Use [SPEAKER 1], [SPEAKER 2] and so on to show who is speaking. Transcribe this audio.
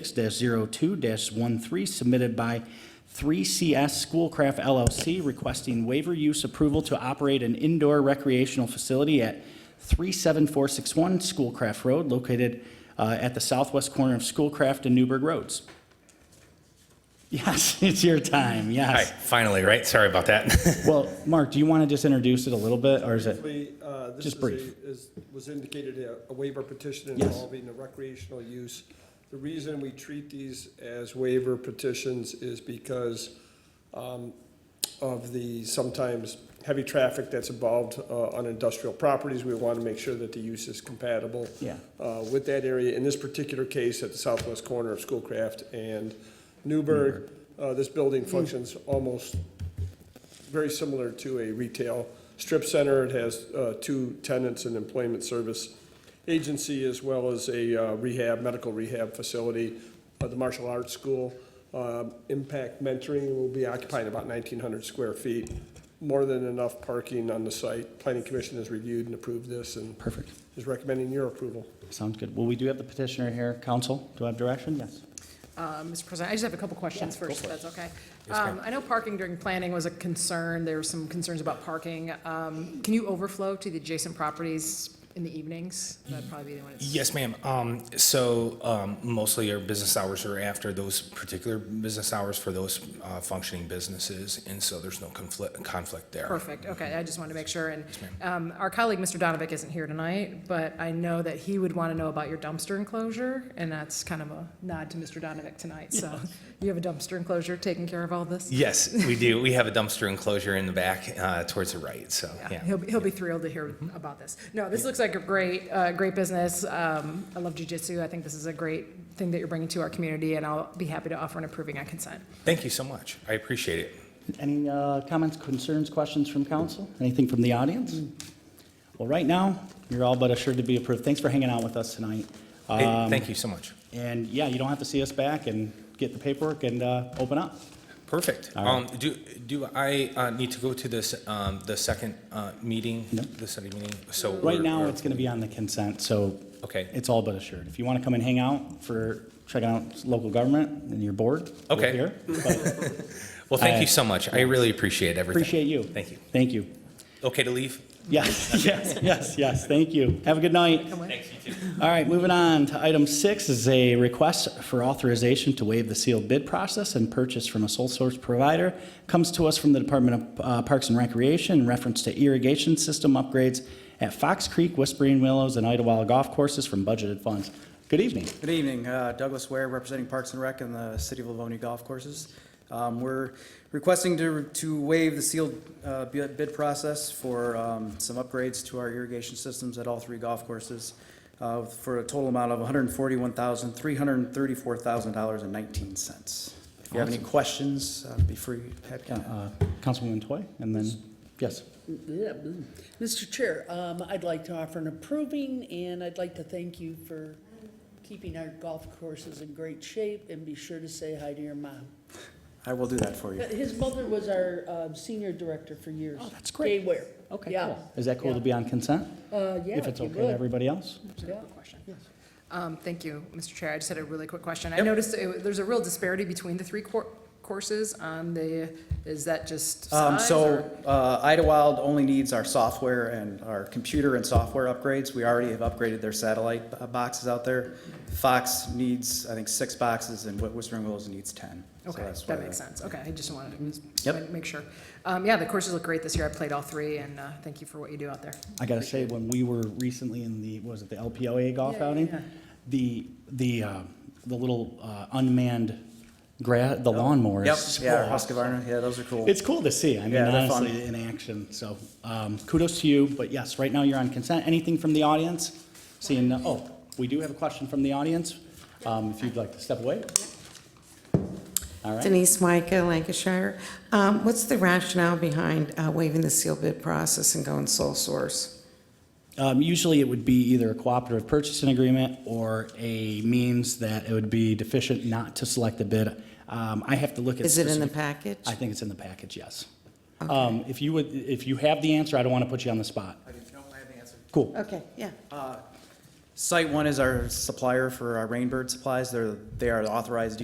[SPEAKER 1] 6-02-13 submitted by 3CS Schoolcraft LLC requesting waiver use approval to operate an indoor recreational facility at 37461 Schoolcraft Road located uh, at the southwest corner of Schoolcraft and Newburgh Roads. Yes, it's your time,
[SPEAKER 2] All right,
[SPEAKER 1] yes.
[SPEAKER 2] finally, right? Sorry about that.
[SPEAKER 1] Well, Mark, do you want to just introduce it a little bit, or is it?
[SPEAKER 3] Briefly, uh, this
[SPEAKER 1] Just
[SPEAKER 3] is a-
[SPEAKER 1] brief.
[SPEAKER 3] is- Was indicated a- a waiver petition
[SPEAKER 1] Yes.
[SPEAKER 3] involving the recreational use. The reason we treat these as waiver petitions is because um, of the sometimes heavy traffic that's involved uh, on industrial properties. We want to make sure that the use is compatible
[SPEAKER 1] Yeah.
[SPEAKER 3] uh, with that area. In this particular case, at the southwest corner of Schoolcraft and Newburgh, uh, this
[SPEAKER 1] Hmm.
[SPEAKER 3] building functions almost very similar to a retail strip center. It has uh, two tenants, an employment service agency, as well as a uh, rehab, medical rehab facility, uh, the martial arts school. Um, Impact Mentoring will be occupying about 1,900 square feet, more than enough parking on the site. Planning Commission has reviewed and approved this and
[SPEAKER 1] Perfect,
[SPEAKER 3] is recommending your approval.
[SPEAKER 1] sounds good. Well, we do have the petitioner here. Counsel, do I have direction? Yes.
[SPEAKER 4] Uh, Mr. President, I just have a couple questions first, if that's okay.
[SPEAKER 2] ma'am.
[SPEAKER 4] Um, I know parking during planning was a concern, there were some concerns about parking. Um, Can you overflow to the adjacent properties in the evenings? That'd probably be the one. it's-
[SPEAKER 2] yes, ma'am. Um, so um, mostly our business hours are after those particular business hours for those uh, functioning businesses, and so there's no conflict conflict there.
[SPEAKER 4] Perfect, okay, I just wanted to make sure. And um, our colleague, Mr. Donovic, isn't here tonight, but I know that he would want to know about your dumpster enclosure, and that's kind of a nod to Mr. Donovic tonight. So you have a dumpster enclosure taking care of all this?
[SPEAKER 2] Yes, we do. We have a dumpster enclosure in the back uh, towards the right. So yeah.
[SPEAKER 4] Yeah, he'll, be- he'll be thrilled to hear
[SPEAKER 5] Mm-hmm.
[SPEAKER 4] about this. No, this looks like a great, uh, great business. Um, I love jujitsu. I think this is a great thing that you're bringing to our community, and I'll be happy to offer an approving on consent.
[SPEAKER 2] Thank you so much. I appreciate it.
[SPEAKER 1] Any uh, comments, concerns, questions from council? Anything from the audience? Well, right now, you're all but assured to be approved. Thanks for hanging out with us tonight.
[SPEAKER 2] Hey,
[SPEAKER 1] Um,
[SPEAKER 2] thank you so much.
[SPEAKER 1] And yeah, you don't have to see us back and get the paperwork and uh, open up.
[SPEAKER 2] Perfect. Um, do do I uh, need to go to this um, the second uh, meeting?
[SPEAKER 1] No.
[SPEAKER 2] The study meeting. So
[SPEAKER 1] Right
[SPEAKER 2] we're-
[SPEAKER 1] now,
[SPEAKER 2] we're-
[SPEAKER 1] it's going to be on the consent, so
[SPEAKER 2] Okay.
[SPEAKER 1] it's all but assured. If you want to come and hang out for, check out local government and your board, we're
[SPEAKER 2] Okay.
[SPEAKER 1] here. But
[SPEAKER 2] Well, thank
[SPEAKER 1] I-
[SPEAKER 2] you so much. I really appreciate everything.
[SPEAKER 1] Appreciate you.
[SPEAKER 2] Thank you.
[SPEAKER 1] Thank you.
[SPEAKER 2] Okay to leave?
[SPEAKER 1] Yes, yes, yes, yes, thank you. Have a good night.
[SPEAKER 4] Come with.
[SPEAKER 1] All right, moving on to item six is a request for authorization to waive the sealed bid process and purchase from a sole source provider. Comes to us from the Department of uh, Parks and Recreation in reference to irrigation system upgrades at Fox Creek, Whispering Willows, and Idlewild Golf Courses from budgeted funds. Good evening.
[SPEAKER 5] Good evening, uh, Douglas Ware, representing Parks and Rec and the City of Livonia Golf Courses. Um, We're requesting to to waive the sealed uh, bid bid process for um, some upgrades to our irrigation systems at all three golf courses uh, for a total amount of $141,334,019. If you have any questions, uh, be free, happy to
[SPEAKER 1] Uh, Councilwoman Toy, and then, yes.
[SPEAKER 6] Yeah, mm. Mr. Chair, um, I'd like to offer an approving, and I'd like to thank you for keeping our golf courses in great shape, and be sure to say hi to your mom. Uh,
[SPEAKER 5] I will do that for you.
[SPEAKER 6] His mother was our, um, senior director for years.
[SPEAKER 1] Oh, that's great.
[SPEAKER 6] Gay wear.
[SPEAKER 1] Okay,
[SPEAKER 6] Yeah.
[SPEAKER 1] cool. Is that cool to
[SPEAKER 6] Yeah.
[SPEAKER 1] be on consent?
[SPEAKER 6] Uh, yeah,
[SPEAKER 1] If it's
[SPEAKER 6] you
[SPEAKER 1] okay to
[SPEAKER 6] would.
[SPEAKER 1] everybody else?
[SPEAKER 6] Yeah.
[SPEAKER 4] Um, Thank you, Mr. Chair. I just had a really quick question. I noticed it- there's a real disparity between the three cour- courses on the, is that just
[SPEAKER 5] Um,
[SPEAKER 4] size?
[SPEAKER 5] so,
[SPEAKER 4] or-
[SPEAKER 5] uh, Idlewild only needs our software and our computer and software upgrades. We already have upgraded their satellite uh, boxes out there. Fox needs, I think, six boxes and Wh- Whispering Willows needs ten. So
[SPEAKER 4] Okay,
[SPEAKER 5] that's why Mm-hmm.
[SPEAKER 4] that makes sense. Okay, I just wanted to just
[SPEAKER 5] Yep.
[SPEAKER 4] make sure. Um, Yeah, the courses look great this year. I played all three, and uh, thank you for what you do out there.
[SPEAKER 1] I gotta say, when we were recently in the, what was it the LPOA golf
[SPEAKER 4] Yeah, yeah,
[SPEAKER 1] outing?
[SPEAKER 4] yeah.
[SPEAKER 1] The, the, uh, the little uh, unmanned gra,
[SPEAKER 4] Oh.
[SPEAKER 1] the lawnmowers.
[SPEAKER 5] Yep,
[SPEAKER 1] is
[SPEAKER 5] yeah,
[SPEAKER 1] cool.
[SPEAKER 5] Husqvarna, yeah, those are cool.
[SPEAKER 1] It's cool to see, I mean,
[SPEAKER 5] Yeah, they're fun.
[SPEAKER 1] honestly, in action, so, um, kudos to you, but yes, right now you're on consent. Anything from the audience? Seeing, no- oh, we do have a question from the audience, um, if you'd like to step away. All right,
[SPEAKER 7] Denise Micah, Lancashire. Um, What's the rationale behind uh, waiving the sealed bid process and going sole source?
[SPEAKER 1] um, usually it would be either a cooperative purchasing agreement or a means that it would be deficient not to select a bid. Um, I have to look at.
[SPEAKER 7] Is it in the
[SPEAKER 1] specific-
[SPEAKER 7] package?
[SPEAKER 1] I think it's in the package, yes. Um, If you would, if you have the answer, I don't want to put you on the spot.
[SPEAKER 5] I have the answer.
[SPEAKER 1] Cool.
[SPEAKER 7] Okay, yeah.
[SPEAKER 5] Site One is our supplier for our Rainbird supplies. They're, they are authorized